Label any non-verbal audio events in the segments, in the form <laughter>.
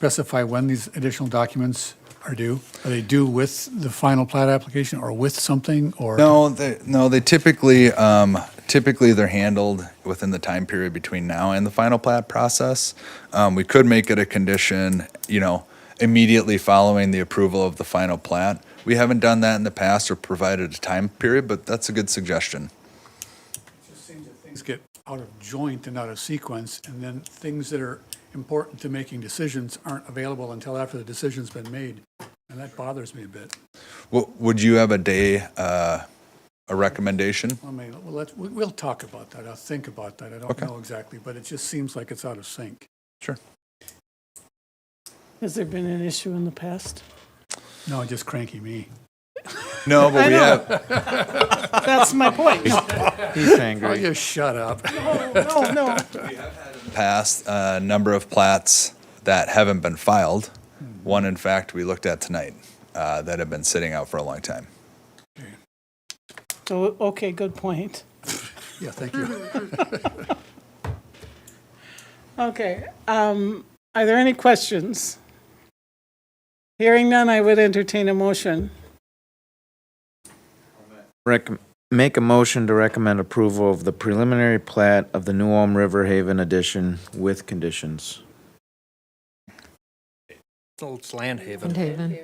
specify when these additional documents are due? Are they due with the final plat application or with something or? No, they, no, they typically, um, typically they're handled within the time period between now and the final plat process. Um, we could make it a condition, you know, immediately following the approval of the final plat. We haven't done that in the past or provided a time period, but that's a good suggestion. just seems that things get out of joint and out of sequence, and then things that are important to making decisions aren't available until after the decision's been made. And that bothers me a bit. What, would you have a day, uh, a recommendation? I mean, well, let's, we- we'll talk about that. I'll think about that. I don't Okay. know exactly, but it just seems like it's out of sync. Sure. Has there been an issue in the past? No, just cranky me. No, but we have, That's my point. No, He's Oh, angry. you shut up. <laughs> no, no. passed a number of plats that haven't been filed. One, in fact, we looked at tonight uh, that have been sitting out for a long time. So, okay, good point. Yeah, thank you. Okay, um, are there any questions? Hearing none, I would entertain a motion. Recom- Make a motion to recommend approval of the preliminary plat of the New Ulm River Haven addition with conditions. It's Land Haven. Land Haven.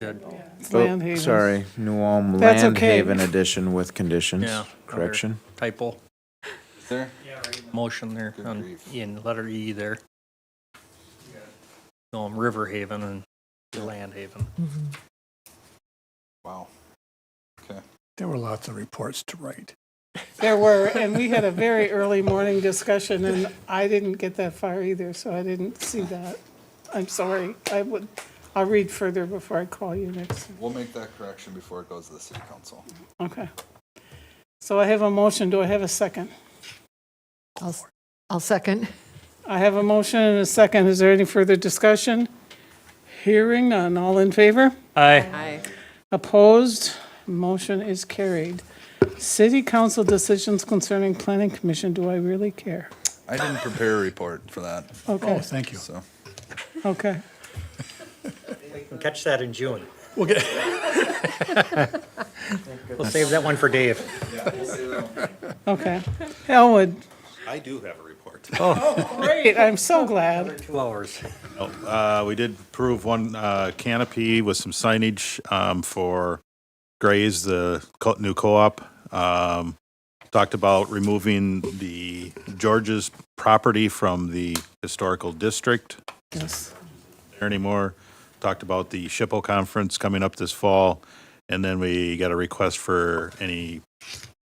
Good. It's Oh, Land Havens. Sorry, New Ulm That's Land okay. Haven addition with conditions. Yeah, under- Correction. Typo. There? Motion there Good on, grief. in letter E there. No, I'm River Haven and Land Haven. Wow. There were lots of reports to write. There were, and we had a very early morning discussion, and I didn't get that far either, so I didn't see that. I'm sorry. I would, I'll read further before I call you next. We'll make that correction before it goes to the city council. Okay. So I have a motion. Do I have a second? I'll, s- I'll second. I have a motion and a second. Is there any further discussion? Hearing none. All in favor? Aye. Opposed? Motion is carried. City council decisions concerning planning commission, do I really care? I didn't prepare a report for that, Oh, Okay, thank you. so. okay. Catch that in June. <laughs> We'll <laughs> get, We'll save that one for Dave. Okay. Elwood, I do have a report. <laughs> great, I'm so glad. Two hours. Uh, We did approve one uh, canopy with some signage um, for Gray's, the co- new co-op. Um, Talked about removing the George's property from the historical district Yes. there anymore. Talked about the SHPO conference coming up this fall. And then we got a request for any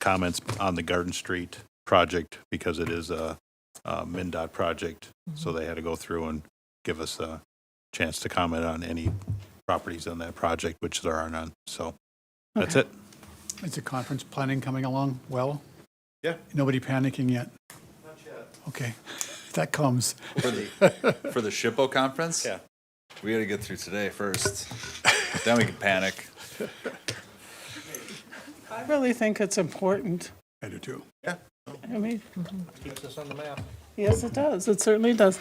comments on the Garden Street project because it is a uh, MinDOT project. So they had to go through and give us a chance to comment on any properties on that project, which there are none. So that's it. is the conference planning coming along well? Yeah. Nobody panicking yet? Not yet. Okay, <laughs> that comes. For the, for the SHPO conference? Yeah. We gotta get through today first, then we can panic. I really think it's important. I do too. I mean, Keeps us on the map. yes, it does, it certainly does.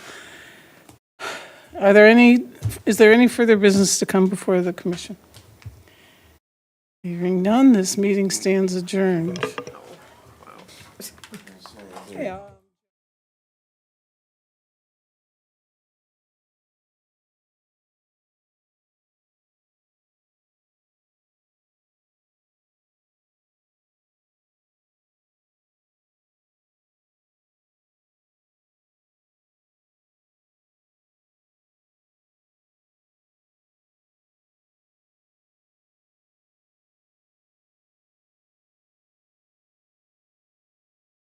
Are there any, is there any further business to come before the commission? Hearing none, this meeting stands adjourned. Yeah.